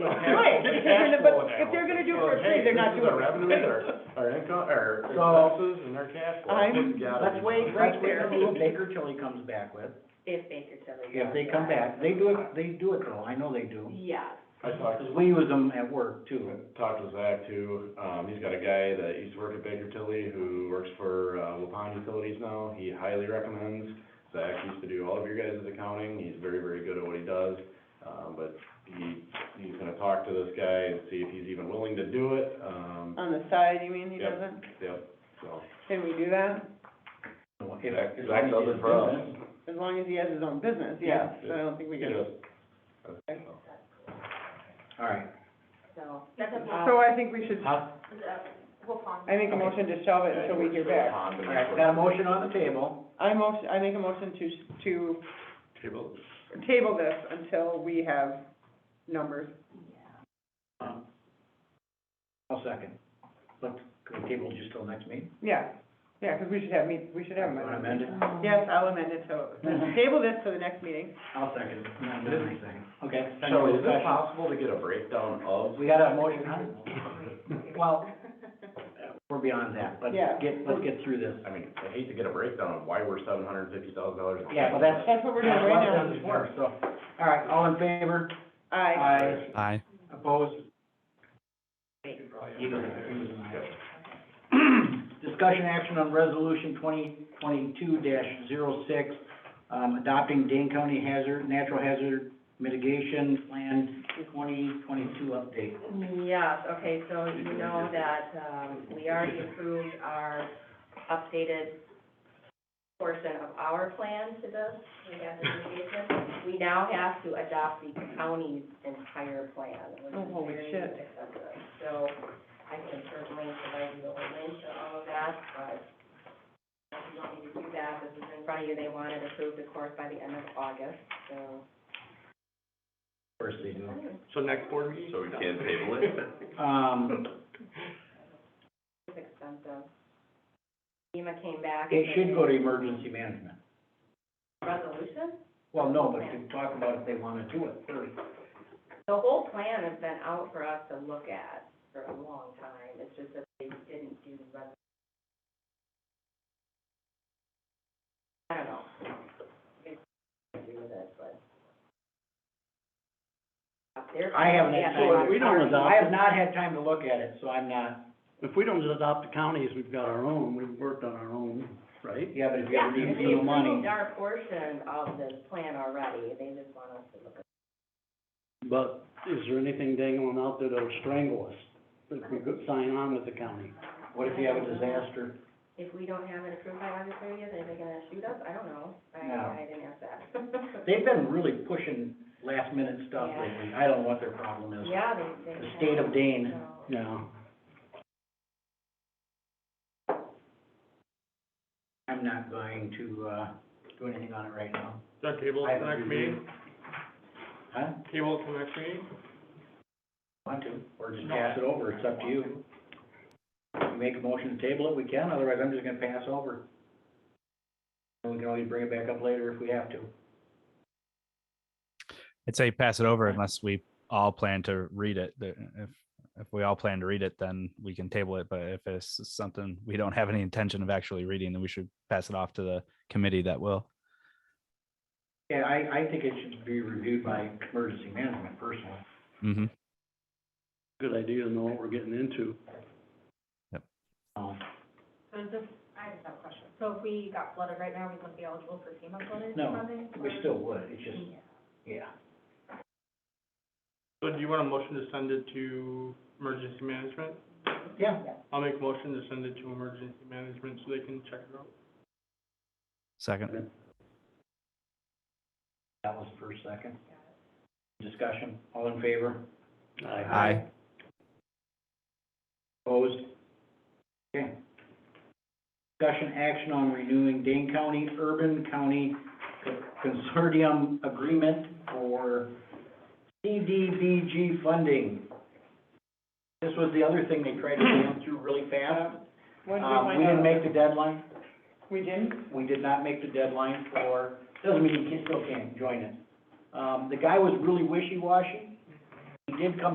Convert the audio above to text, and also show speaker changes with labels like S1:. S1: if they're gonna do it for free, they're not
S2: Hey, this is
S1: doing it.
S2: our revenues, our, our income, our
S3: So-
S2: expenses, and our cash flow.
S1: I'm-
S2: It's gotta
S3: Let's
S2: be-
S3: wait,
S1: right
S3: let's wait
S1: there.
S3: until Baker Tilly comes back with,
S4: if Baker Tilly.
S3: if they come back, they do it, they do it though, I know they do.
S4: Yes,
S2: I talked,
S3: Cause we use them at work too.
S2: talked to Zach too, um, he's got a guy that used to work at Baker Tilly who works for, uh, Wapan Utilities now, he highly recommends. Zach used to do all of your guys' accounting, he's very, very good at what he does, um, but he, he's gonna talk to this guy and see if he's even willing to do it, um,
S1: On the side, you mean, he
S2: Yep.
S1: doesn't?
S2: yep, so.
S1: Can we do that?
S3: So if-
S2: Zach,
S3: as
S2: Zach
S3: long as
S2: does it
S3: it's
S2: for us.
S3: business,
S1: As long as he has his own business, yes, so I don't think we
S2: He
S1: can.
S2: does.
S3: All right.
S4: so. That's a
S1: So I think we should,
S3: Huh?
S4: We'll pause.
S1: I make a motion to shelve it until we hear back.
S3: All right, got a motion on the table.
S1: I motion, I make a motion to, to
S2: Table.
S1: table this until we have numbers.
S3: Um, I'll second. But could we table just till next meeting?
S1: Yeah, yeah, because we should have, meet- we should have.
S3: Want to
S1: them.
S3: amend it?
S1: Yes, I'll amend it, so, table this to the next meeting.
S3: I'll second. No, no, I second. Okay.
S2: So is it
S3: Discussion.
S2: possible to get a breakdown of?
S3: We got a motion, huh? Well, we're beyond that, let's
S1: Yeah.
S3: get, let's get through this.
S2: I mean, I hate to get a breakdown of why we're seven hundred and fifty thousand dollars.
S3: Yeah, well, that's-
S1: That's what we're doing right now.
S3: Let's work, so, all right, all in favor?
S1: Aye.
S5: Aye.
S3: Opposed? Discussion action on resolution twenty twenty-two 6 um, adopting Dane County Hazard, Natural Hazard Mitigation Plan twenty twenty-two update.
S4: Yes, okay, so you know that, um, we already approved our updated portion of our plan to this, we have the mitigation. We now have to adopt the county's entire plan, which
S1: Oh, holy
S4: is very
S1: shit.
S4: expensive. So I can certainly provide you a link to all of that, but if you want me to do that, this is in front of you, they want it approved, of course, by the end of August, so.
S3: First they do.
S2: So next board meeting? So we can table it?
S3: Um,
S4: It's expensive. FEMA came back. and
S3: it should go to emergency management.
S4: Resolution?
S3: Well, no, but to talk about if they wanna do it first.
S4: The whole plan has been out for us to look at for a long time. It's just that they didn't do the resolution. I don't know. It's to do with it, but. They're-
S3: I haven't
S4: Yeah,
S3: had time,
S6: we don't adopt
S3: I have not had time to look at it, so I'm not,
S6: If we don't adopt the counties, we've got our own, we've worked on our own, right?
S3: yeah, but if you
S4: Yeah,
S3: have
S4: we
S3: any new money.
S4: approved our portion of this plan already. They just want us to look at.
S6: But is there anything dangling out there that'll strangle us if we could sign on with the county?
S3: What if you have a disaster?
S4: If we don't have it approved by August thirtieth, are they gonna shoot us? I don't know.
S3: No.
S4: I, I didn't ask that.
S3: They've been really pushing last minute stuff
S4: Yeah.
S3: lately. I don't know what their problem is.
S4: Yeah, they, they.
S3: The state of Dane.
S4: So-
S6: Yeah.
S3: I'm not going to, uh, do anything on it right now.
S7: That table
S3: I
S7: at the
S3: haven't
S7: next
S3: reviewed
S7: meeting,
S3: Huh?
S7: table at the next meeting?
S3: Want to, or just
S7: No.
S3: pass it over, it's up to you. You Make a motion to table it, we can, otherwise I'm just gonna pass over. And we can always bring it back up later if we have to.
S5: I'd say pass it over unless we all plan to read it. The- If, if we all plan to read it, then we can table it. But if it's something we don't have any intention of actually reading, then we should pass it off to the committee that will.
S3: Yeah, I, I think it should be reviewed by emergency management personally.
S5: hmm
S6: Good idea to know what we're getting into.
S3: Um,
S8: So is this, I just have a question. So if we got flooded right now, we wouldn't be eligible for FEMA flooding?
S3: No,
S8: funding,
S3: we
S8: or-
S3: still would, it's just, yeah.
S7: So do you want a motion to send it to emergency management?
S3: Yeah.
S7: I'll make a motion to send it to emergency management so they can check it out.
S5: Second.
S3: That was first, second. Discussion, all in favor?
S5: Aye.
S3: Opposed? Okay. Discussion action on renewing Dane County Urban County Consortium Agreement for CDBG funding. This was the other thing they tried to jam through really fast.
S1: When do we
S3: Um,
S1: find
S3: we didn't
S1: out?
S3: make the deadline,
S1: We didn't?
S3: we did not make the deadline for, doesn't mean you can, still can't join it. Um, the guy was really wishy-washy, he did come